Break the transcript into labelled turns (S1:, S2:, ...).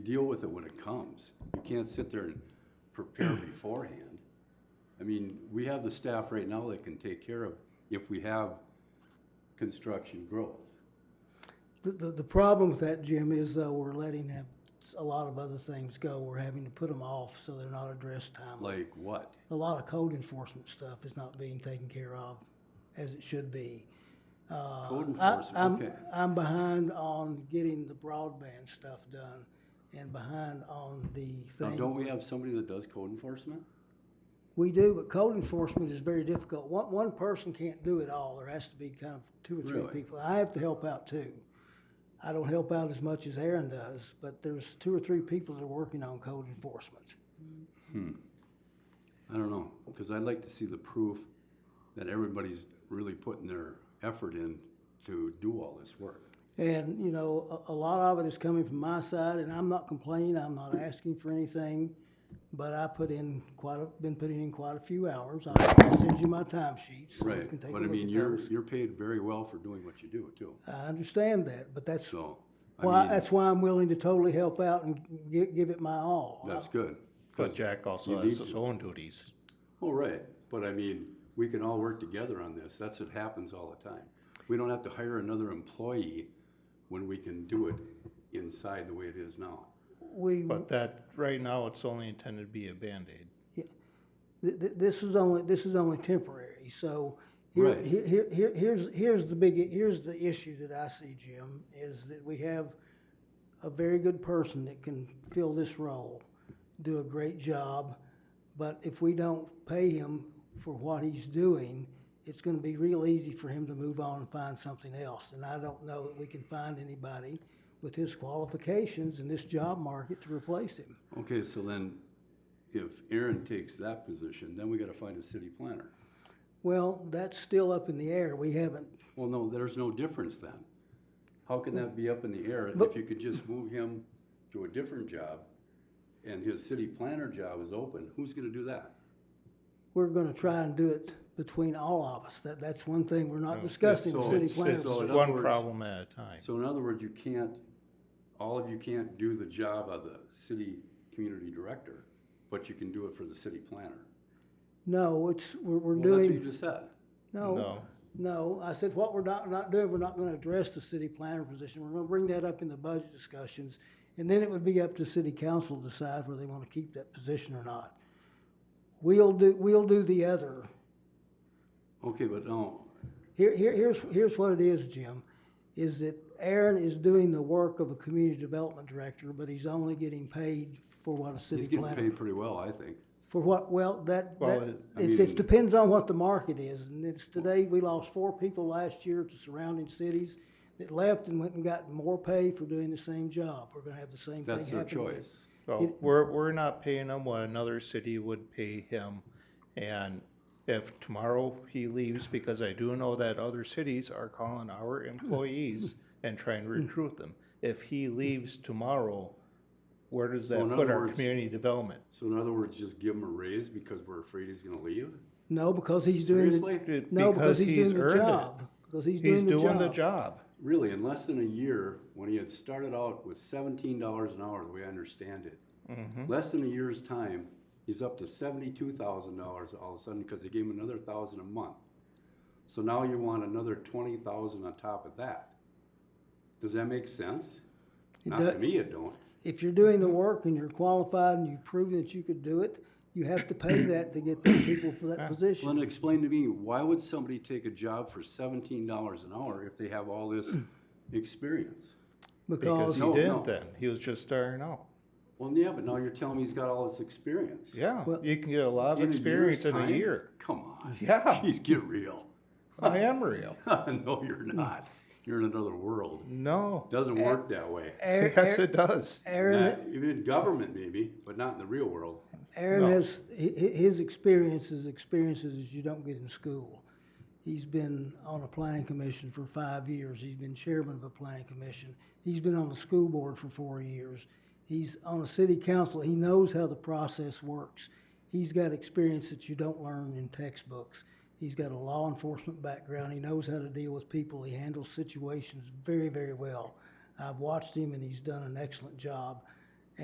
S1: deal with it when it comes. You can't sit there and prepare beforehand. I mean, we have the staff right now that can take care of if we have construction growth.
S2: The, the, the problem with that, Jim, is though we're letting have a lot of other things go. We're having to put them off so they're not addressed timely.
S1: Like what?
S2: A lot of code enforcement stuff is not being taken care of as it should be. Uh,
S1: Code
S2: I-
S1: enforcement,
S2: I'm-
S1: okay.
S2: I'm behind on getting the broadband stuff done and behind on the
S1: Now,
S2: thing.
S1: don't we have somebody that does code enforcement?
S2: We do, but code enforcement is very difficult. One, one person can't do it all. There has to be kind of two or three
S1: Really?
S2: people. I have to help out too. I don't help out as much as Aaron does, but there's two or three people that are working on code enforcement.
S1: I don't know, because I'd like to see the proof that everybody's really putting their effort in to do all this work.
S2: And, you know, a, a lot of it is coming from my side and I'm not complaining, I'm not asking for anything. But I put in quite a, been putting in quite a few hours. I'll send you my time sheets so you
S1: Right,
S2: can take a
S1: but I
S2: look
S1: mean,
S2: at
S1: you're,
S2: those.
S1: you're paid very well for doing what you do too,
S2: I understand that, but that's
S1: so. I
S2: Well,
S1: mean,
S2: that's why I'm willing to totally help out and gi- give it my all.
S1: That's good.
S3: But Jack
S1: you
S3: also
S1: need
S3: has his
S1: to.
S3: own duties.
S1: Oh, right, but I mean, we can all work together on this, that's what happens all the time. We don't have to hire another employee when we can do it inside the way it is now.
S2: We,
S3: But that, right now, it's only intended to be a Band-Aid.
S2: th- th- this is only, this is only temporary, so here,
S1: Right.
S2: here, here- here, here's, here's the big, here's the issue that I see, Jim, is that we have a very good person that can fill this role, do a great job, but if we don't pay him for what he's doing, it's gonna be real easy for him to move on and find something else, and I don't know that we can find anybody with his qualifications in this job market to replace him.
S1: Okay, so then, if Aaron takes that position, then we gotta find a city planner.
S2: Well, that's still up in the air. We haven't,
S1: Well, no, there's no difference then. How can that be up in the air if
S2: But-
S1: you could just move him to a different job and his city planner job is open? Who's gonna do that?
S2: we're gonna try and do it between all of us. That, that's one thing we're not discussing, the
S1: so-
S2: city
S1: it's-
S2: planners.
S1: so in
S3: It's
S1: other
S3: one
S1: words-
S3: problem at a time.
S1: So in other words, you can't, all of you can't do the job of the city community director, but you can do it for the city planner.
S2: No, it's, we're,
S1: Well,
S2: we're
S1: that's what you
S2: doing,
S1: just said.
S2: no, no. I said, what we're not, not doing, we're not gonna address the city planner position. We're gonna bring that up in the budget discussions. And then it would be up to city council to decide whether they wanna keep that position or not. We'll do, we'll do the other.
S1: Okay, but no,
S2: Here, here, here's, here's what it is, Jim, is that Aaron is doing the work of a community development director, but he's only getting paid for what a
S1: he's
S2: city
S1: getting
S2: planner.
S1: paid pretty well, I think.
S2: For what, well, that,
S3: Well,
S2: that,
S3: it-
S1: I
S2: it's, it
S1: mean-
S2: depends on what the market is, and it's today, we lost four people last year to surrounding cities that left and went and got more pay for doing the same job. We're gonna have the same thing happen.
S1: That's their
S2: again.
S1: choice.
S3: So we're, we're not paying him what another city would pay him. And if tomorrow he leaves, because I do know that other cities are calling our employees and trying to recruit them. If he leaves tomorrow, where does
S1: So
S3: that
S1: in
S3: put
S1: other
S3: our
S1: words-
S3: community development?
S1: So in other words, just give him a raise because we're afraid he's gonna leave?
S2: No, because he's doing, the-
S1: Seriously?
S2: no, because he's doing the
S3: earned it.
S2: job, because he's
S3: He's
S2: doing the job.
S3: doing the job.
S1: Really, in less than a year, when he had started out with seventeen dollars an hour, the way I understand it,
S3: Mhm.
S1: less than a year's time, he's up to seventy-two thousand dollars all of a sudden because they gave him another thousand a month. So now you want another twenty thousand on top of that. Does that make sense?
S2: It
S1: Not to
S2: do-
S1: me, it don't.
S2: If you're doing the work and you're qualified and you've proven that you could do it, you have to pay that to get the people for that
S1: Well,
S2: position.
S1: then explain to me, why would somebody take a job for seventeen dollars an hour if they have all this experience?
S2: Because,
S3: Because he
S1: No, no.
S3: didn't then, he was just starting out.
S1: Well, yeah, but now you're telling me he's got all this experience.
S3: Yeah,
S2: Well-
S3: you can get a lot of
S1: In a year's
S3: experience in a
S1: time?
S3: year.
S1: Come on.
S3: Yeah.
S1: Jeez, get real.
S3: I am real.
S1: No, you're not. You're in another world.
S3: No,
S1: Doesn't work that way.
S2: Aaron,
S3: yes,
S2: Aaron-
S3: it does.
S2: Aaron,
S1: Not- even in government maybe, but not in the real world.
S2: Aaron
S3: No.
S2: has, hi- hi- his experience is experiences that you don't get in school. He's been on a planning commission for five years. He's been chairman of a planning commission. He's been on the school board for four years. He's on a city council. He knows how the process works. He's got experience that you don't learn in textbooks. He's got a law enforcement background. He knows how to deal with people. He handles situations very, very well. I've watched him and he's done an excellent job.